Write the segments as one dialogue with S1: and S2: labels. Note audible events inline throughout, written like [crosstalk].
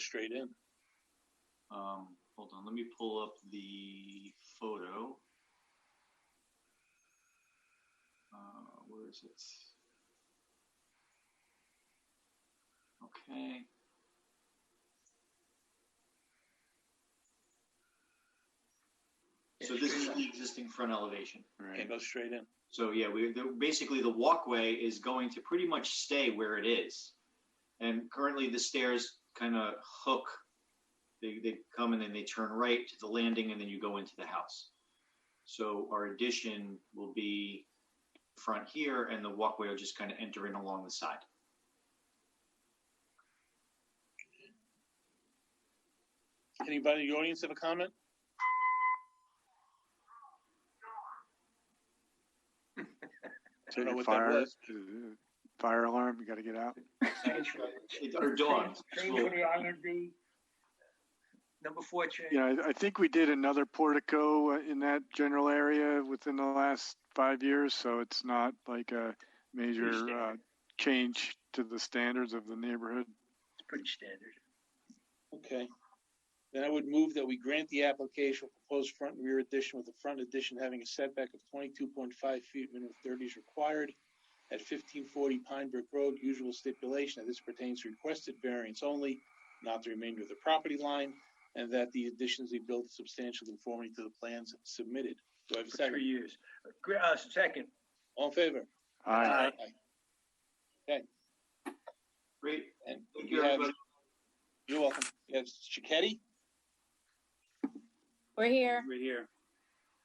S1: straight in.
S2: Um, hold on, let me pull up the photo. Uh, where is it? Okay. So this is the existing front elevation,
S1: It
S2: right?
S1: goes straight in.
S2: So yeah, we, the, basically the walkway is going to pretty much stay where it is. And currently the stairs kind of hook, they, they come and then they turn right to the landing and then you go into the house. So our addition will be front here and the walkway will just kind of enter in along the side.
S1: Anybody in the audience have a comment? Don't know what that
S3: Fire.
S1: was.
S3: Fire alarm, you gotta get out.
S2: It- Or dogs.
S4: Change
S2: Well,
S4: for the IND. Number four change.
S3: Yeah, I, I think we did another portico uh, in that general area within the last five years, so it's not like a major
S4: Pretty standard.
S3: uh, change to the standards of the neighborhood.
S4: It's pretty standard.
S1: Okay. Then I would move that we grant the application for proposed front and rear addition with the front addition having a setback of twenty-two point five feet, minimum thirty is required at fifteen forty Pine Brook Road, usual stipulation that this pertains to requested variance only, not the remainder of the property line, and that the additions be built substantial conformity to the plans submitted. Do I have a
S4: For three
S1: second?
S4: years. Gr- Uh, second,
S1: All in favor?
S3: I,
S4: Aye.
S2: Great.
S1: And
S2: Thank
S1: we
S2: you,
S1: have-
S2: everybody.
S1: You're welcome. We have Chiquetti?
S5: We're here.
S2: Right here.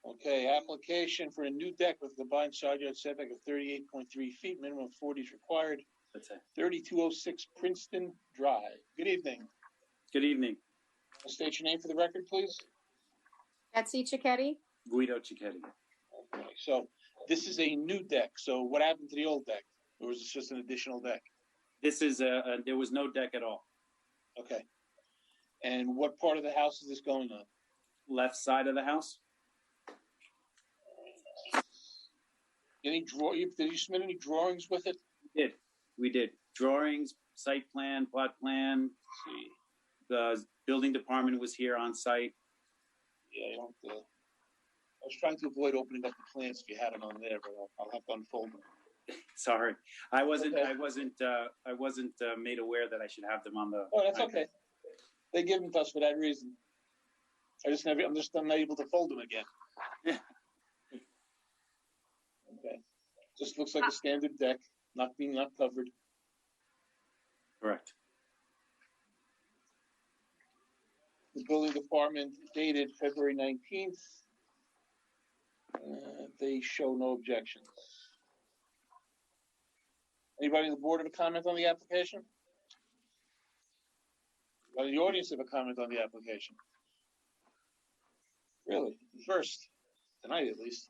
S1: Okay, application for a new deck with combined side yard setback of thirty-eight point three feet, minimum of forty is required,
S6: That's it.
S1: thirty-two oh six Princeton Drive. Good evening.
S6: Good evening,
S1: State your name for the record, please.
S5: Betsy Chiquetti.
S6: Guido Cicchetti.
S1: Okay, so this is a new deck, so what happened to the old deck? Or was this just an additional deck?
S6: This is a, a there was no deck at all.
S1: Okay. And what part of the house is this going on?
S6: Left side of the house.
S1: Any draw, you- did you submit any drawings with it?
S6: Did we did drawings, site plan, plot plan.
S1: See,
S6: The building department was here on site.
S1: Yeah, you don't, uh, I was trying to avoid opening up the plans if you had them on there, but I'll- I'll have to unfold them.
S6: Sorry, I wasn't.
S1: Okay.
S6: I wasn't. Uh, I wasn't uh, made aware that I should have them on the.
S1: Oh, that's okay. They give them to us for that reason. I just never, I'm just not able to fold them again. [laughs]
S6: Yeah.
S1: Okay, just looks like a standard deck, not being not covered.
S6: Correct.
S1: The building department dated February nineteenth. Uh, they show no objections. Anybody on the board have a comment on the application? Anybody in the audience have a comment on the application? Really, first, tonight at least.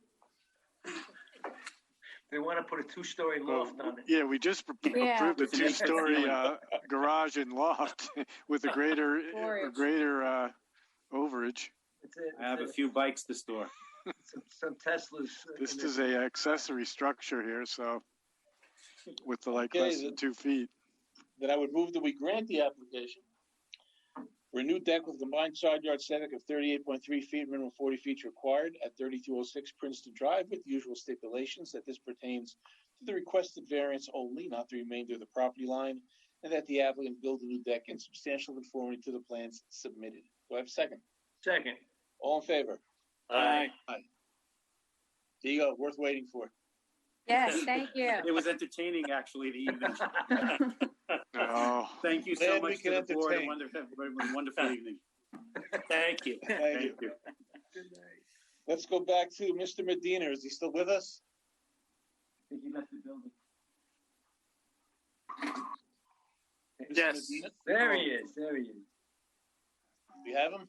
S4: they want to put a two-story loft on it.
S3: yeah, we just pro-
S5: Yeah.
S3: approved a
S6: It's an interesting
S3: two-story
S6: one.
S3: uh, garage and loft [laughs] with a greater, a
S5: Storage.
S3: greater uh, overage.
S4: It's a-
S6: I have a
S4: it's
S6: few bikes to store.
S4: Some some Teslas. uh,
S3: This
S4: in there.
S3: is a accessory structure here, so with the like
S1: Okay,
S3: less
S1: the-
S3: than
S1: [laughs]
S3: two feet.
S1: that I would move that we grant the application for a new deck with combined side yard setback of thirty-eight point three feet, minimum forty feet required at thirty-two oh six Princeton Drive with usual stipulations that this pertains to the requested variance only, not the remainder of the property line, and that the applicant build a new deck in substantial conformity to the plans submitted. Do I have a second?
S4: Second.
S1: All in favor?
S6: Aye.
S1: There you go, worth waiting for.
S5: Yes, thank you.
S6: Uh, It was entertaining, actually, the evening.
S1: [laughs]
S3: Oh,
S6: Thank you so
S1: Glad we
S6: much to the
S1: can
S6: board. A
S1: entertain.
S6: wonderful, everyone, wonderful
S1: [laughs]
S6: evening. Thank you.
S1: Thank you.
S6: you.
S1: Let's go back to Mr. Medina. Is he still with us?
S6: think he left the building.
S1: Mr.
S6: Yes.
S1: Medina?
S4: There he is, there he is.
S1: We have him?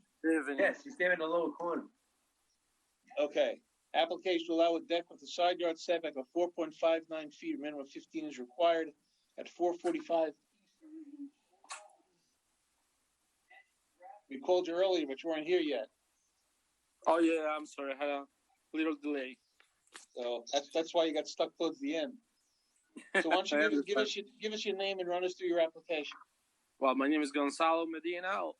S4: Yes, he's there in the lower corner.
S1: Okay, application to allow a deck with a side yard setback of four point five nine feet, minimum fifteen is required at four forty-five. We called you earlier, but you weren't here yet,
S7: Oh yeah, I'm sorry, I had a little delay.
S1: so that's, that's why you got stuck towards the end. So why don't you
S7: I
S1: give, us- give us, your- give us your name and run us through your application?
S6: Well, my name is Gonzalo Medina.